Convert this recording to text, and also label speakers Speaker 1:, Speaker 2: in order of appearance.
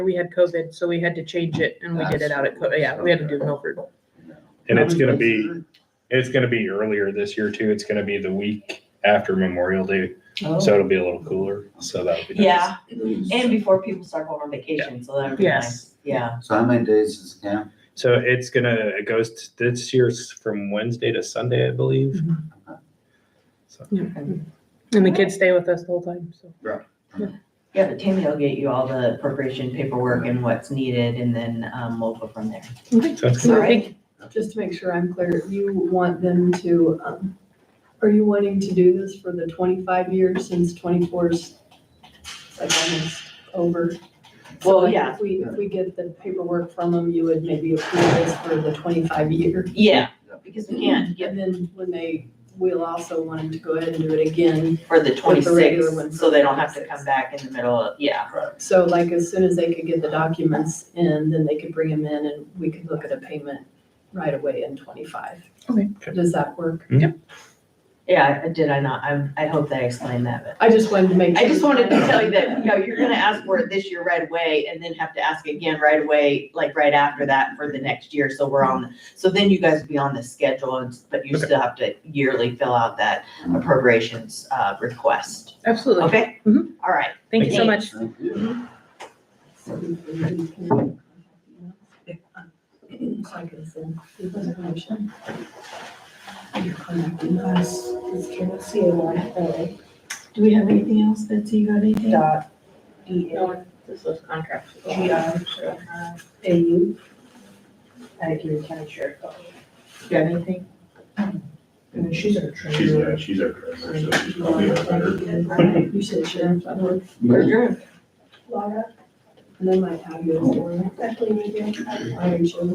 Speaker 1: we had COVID, so we had to change it and we did it out at, Co- yeah, we had to do Milford.
Speaker 2: And it's gonna be, it's gonna be earlier this year too. It's gonna be the week after Memorial Day,
Speaker 3: Oh.
Speaker 2: so it'll be a little cooler, so that'll be nice.
Speaker 4: Yeah, and before people start going on vacation, so that'd be
Speaker 1: Yes.
Speaker 4: nice, yeah.
Speaker 5: So how many days is the camp?
Speaker 2: So it's gonna, it goes, t- this year's from Wednesday to Sunday, I believe. So
Speaker 1: And the kids stay with us the whole time, so.
Speaker 4: Yeah, but Tammy will get you all the appropriation paperwork and what's needed, and then, um, we'll go from there.
Speaker 2: sounds
Speaker 3: All
Speaker 2: good.
Speaker 3: right, just to make sure I'm clear, you want them to, um, are you wanting to do this for the twenty-five years since 24's like almost over? So,
Speaker 4: Well,
Speaker 3: like,
Speaker 4: yeah.
Speaker 3: If we, if we get the paperwork from them, you would maybe approve this for the twenty-five year.
Speaker 4: Yeah, because we can't get
Speaker 3: And then when they, we'll also want them to go ahead and do it again.
Speaker 4: for the
Speaker 3: regular one
Speaker 4: twenty-six,
Speaker 3: for
Speaker 4: so they don't have to
Speaker 3: 26.
Speaker 4: come back in the middle of, yeah.
Speaker 3: So like as soon as they could get the documents in, then they could bring them in and we could look at a payment right away in twenty-five.
Speaker 1: Okay.
Speaker 3: Does that work?
Speaker 4: Yeah, I- did I not, I, I hope that I explained that, but.
Speaker 3: I just wanted to make.
Speaker 4: I just
Speaker 3: sure.
Speaker 4: wanted to tell you that, you know, you're gonna ask for it this year right away, and then have to ask again right away, like right after that for the next year, so we're on, so then you guys will be on the schedule, and, but you
Speaker 2: Okay.
Speaker 4: still have to yearly fill out that appropriations, uh, request,
Speaker 1: Absolutely.
Speaker 4: okay?
Speaker 1: Mhm.
Speaker 4: All right,
Speaker 1: Thank you so much.
Speaker 5: Thank you.
Speaker 3: So I can send you the information. Your contact emails.
Speaker 4: do we have anything else, Betsy, you got anything?
Speaker 1: This was contract.
Speaker 4: You got anything?
Speaker 6: She's, yeah, she's our treasurer, so she's probably our better.
Speaker 3: You said sheriff, I don't know.
Speaker 4: We're good.
Speaker 3: Laura. And then my tag is Laura. Actually, maybe I. I am sure.